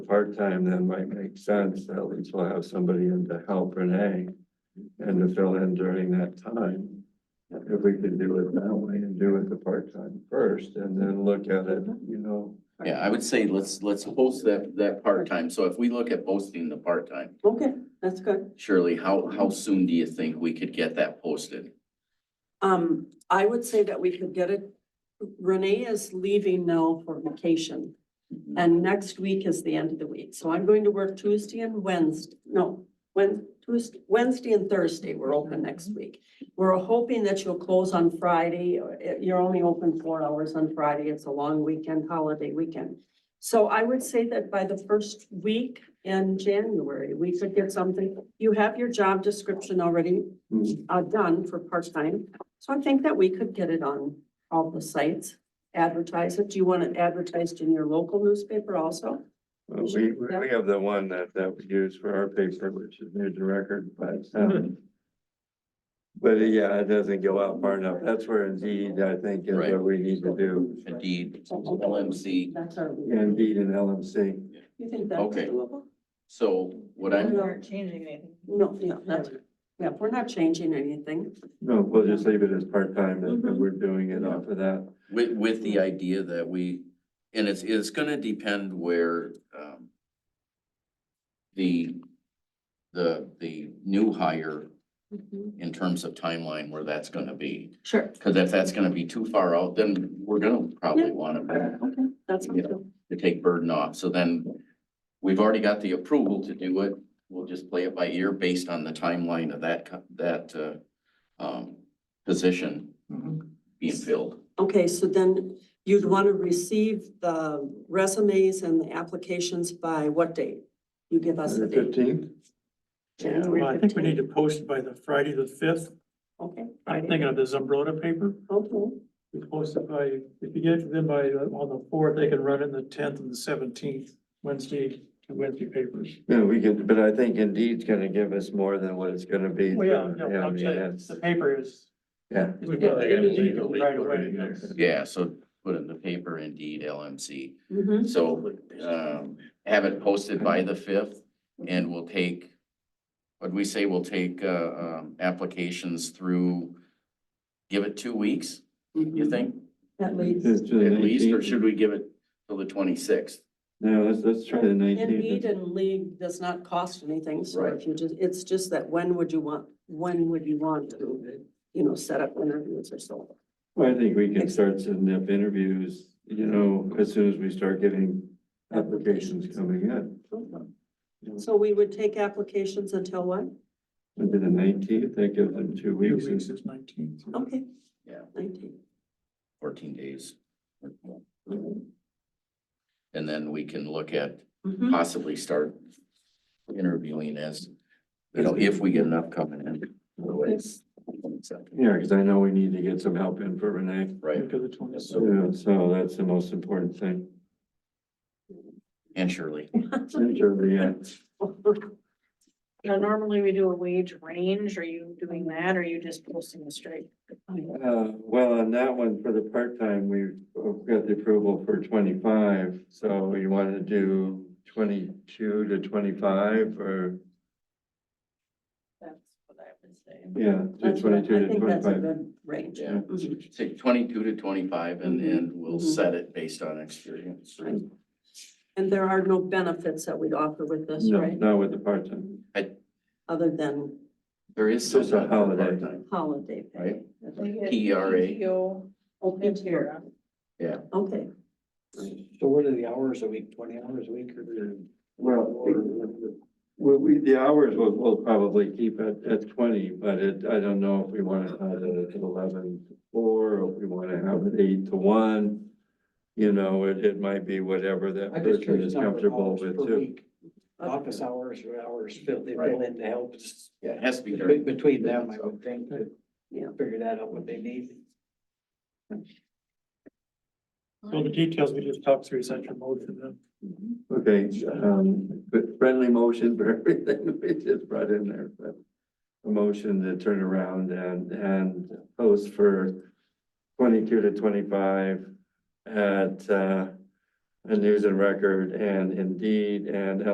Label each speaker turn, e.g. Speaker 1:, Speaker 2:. Speaker 1: part-time then might make sense. At least we'll have somebody in to help Renee and to fill in during that time. If we could do it that way and do it the part-time first and then look at it, you know.
Speaker 2: Yeah, I would say let's, let's post that, that part-time. So if we look at posting the part-time,
Speaker 3: Okay, that's good.
Speaker 2: Shirley, how, how soon do you think we could get that posted?
Speaker 3: Um, I would say that we could get it. Renee is leaving now for vacation and next week is the end of the week. So I'm going to work Tuesday and Wednesday, no, Wed Tuesday, Wednesday and Thursday, we're open next week. We're hoping that you'll close on Friday. Uh, You're only open four hours on Friday. It's a long weekend, holiday weekend. So I would say that by the first week in January, we could get something. You have your job description already uh, done for part-time. So I think that we could get it on all the sites, advertise it. Do you want it advertised in your local newspaper also?
Speaker 1: Well, We, we have the one that, that we use for our paper, which is News and Record, but, um, but yeah, it doesn't go out far enough. That's where Indeed, I think, is
Speaker 2: Right.
Speaker 1: what we need to do.
Speaker 2: Indeed, LMC.
Speaker 3: That's our.
Speaker 1: Indeed and LMC.
Speaker 3: You think that's
Speaker 2: Okay.
Speaker 3: doable?
Speaker 2: So what I'm,
Speaker 4: aren't changing anything.
Speaker 3: No, yeah, that's, yeah, we're not changing anything.
Speaker 1: No, we'll just leave it as part-time and
Speaker 3: Mhm.
Speaker 1: we're doing it off of that.
Speaker 2: with, with the idea that we, and it's, it's gonna depend where, um, the, the, the new hire in terms of timeline where that's gonna be.
Speaker 3: Sure.
Speaker 2: Cause if that's gonna be too far out, then we're gonna probably wanna
Speaker 3: Okay, that's
Speaker 2: Yeah.
Speaker 3: okay.
Speaker 2: to take burden off. So then we've already got the approval to do it. We'll just play it by ear based on the timeline of that, co- that, uh, um, position
Speaker 5: Mm-hmm.
Speaker 2: being filled.
Speaker 3: Okay, so then you'd want to receive the resumes and the applications by what date? You give us
Speaker 1: The
Speaker 3: the date.
Speaker 1: fifteenth?
Speaker 5: Yeah,
Speaker 3: January
Speaker 5: well, I think we
Speaker 3: 15th.
Speaker 5: need to post it by the Friday the fifth.
Speaker 3: Okay.
Speaker 5: I'm
Speaker 3: Friday.
Speaker 5: thinking of this umbrella paper.
Speaker 3: Okay,
Speaker 5: We post it by, if you get it to them by, uh, on the fourth, they can run it in the tenth and the seventeenth, Wednesday, and Wednesday papers.
Speaker 1: Yeah, we could, but I think Indeed's gonna give us more than what it's gonna be.
Speaker 5: Well, yeah,
Speaker 1: Yeah,
Speaker 5: no,
Speaker 1: I
Speaker 5: I'm
Speaker 1: mean,
Speaker 5: saying,
Speaker 1: that's,
Speaker 5: the paper is.
Speaker 1: yeah.
Speaker 5: we got it in the right away, yes.
Speaker 2: Yeah, so put in the paper indeed LMC.
Speaker 3: mhm.
Speaker 2: So,
Speaker 1: uh,
Speaker 2: um, have it posted by the fifth and we'll take, what we say, we'll take, uh, um, applications through, give it two weeks, you think?
Speaker 1: Mm-hmm.
Speaker 3: At least.
Speaker 1: It's the
Speaker 2: At least, or
Speaker 1: 19th.
Speaker 2: should we give it till the twenty-sixth?
Speaker 1: No, let's, let's try the
Speaker 3: Indeed
Speaker 1: nineteenth.
Speaker 3: and league does not cost anything, so
Speaker 2: Right.
Speaker 3: if you just, it's just that when would you want, when would you want to, you know, set up interviews or so?
Speaker 1: I think we can start setting up interviews, you know, as soon as we start getting applications coming in.
Speaker 3: So we would take applications until what?
Speaker 1: Under the nineteenth, that gives them two
Speaker 5: Two
Speaker 1: weeks.
Speaker 5: weeks is nineteenth.
Speaker 3: Okay.
Speaker 2: Yeah.
Speaker 3: Nineteen.
Speaker 2: fourteen days.
Speaker 3: Mhm.
Speaker 2: And then we can look at
Speaker 3: Mhm.
Speaker 2: possibly start interviewing as, you know, if we get enough coming in. Otherwise,
Speaker 1: Yeah, because I know we need to get some help in for Renee.
Speaker 2: Right,
Speaker 5: After the twentieth.
Speaker 1: Yeah, so that's the most important thing.
Speaker 2: and Shirley.
Speaker 1: Sincerely, yeah.
Speaker 4: Now, normally we do a wage range. Are you doing that? Or are you just posting the straight?
Speaker 1: Uh, well, on that one, for the part-time, we've got the approval for twenty-five, so you want to do twenty-two to twenty-five or,
Speaker 4: That's what I would say.
Speaker 1: yeah, do
Speaker 3: That's what I- I
Speaker 1: twenty-two to
Speaker 3: think that's a
Speaker 1: twenty-five.
Speaker 3: good Range.
Speaker 2: Yeah.
Speaker 3: Mhm.
Speaker 2: Say twenty-two to twenty-five and then we'll
Speaker 1: Mm-hmm.
Speaker 3: Mhm.
Speaker 2: set it based on experience.
Speaker 3: Right. And there are no benefits that we'd offer with this,
Speaker 1: No,
Speaker 3: right?
Speaker 1: not with the part-time.
Speaker 3: Other than
Speaker 2: There is
Speaker 1: Just a
Speaker 2: some
Speaker 1: holiday.
Speaker 2: part-time.
Speaker 3: holiday pay.
Speaker 4: E
Speaker 2: PRA.
Speaker 3: Okay, here, okay.
Speaker 6: So what are the hours a week, twenty hours a week or?
Speaker 1: Well, well, we, the hours will, will probably keep at, at twenty, but it, I don't know if we want to have it at eleven to four, or if we want to have it eight to one. You know, it, it might be whatever that
Speaker 6: I'm
Speaker 1: person
Speaker 6: just curious.
Speaker 1: is
Speaker 6: number of
Speaker 1: comfortable
Speaker 6: hours
Speaker 1: with
Speaker 6: per
Speaker 1: too.
Speaker 6: week. Office hours or hours filled, they fill
Speaker 2: Right.
Speaker 6: in to help. us.
Speaker 2: Yeah, it has to be
Speaker 6: Be-
Speaker 2: during,
Speaker 6: Between them, I would think, to
Speaker 3: Yeah.
Speaker 6: figure that out what they need.
Speaker 5: So the details we just talked through is that your motion then?
Speaker 1: Okay, um, but friendly motion for everything we just brought in there, but. A motion to turn around and, and post for twenty-two to twenty-five at, uh, and News and Record and Indeed and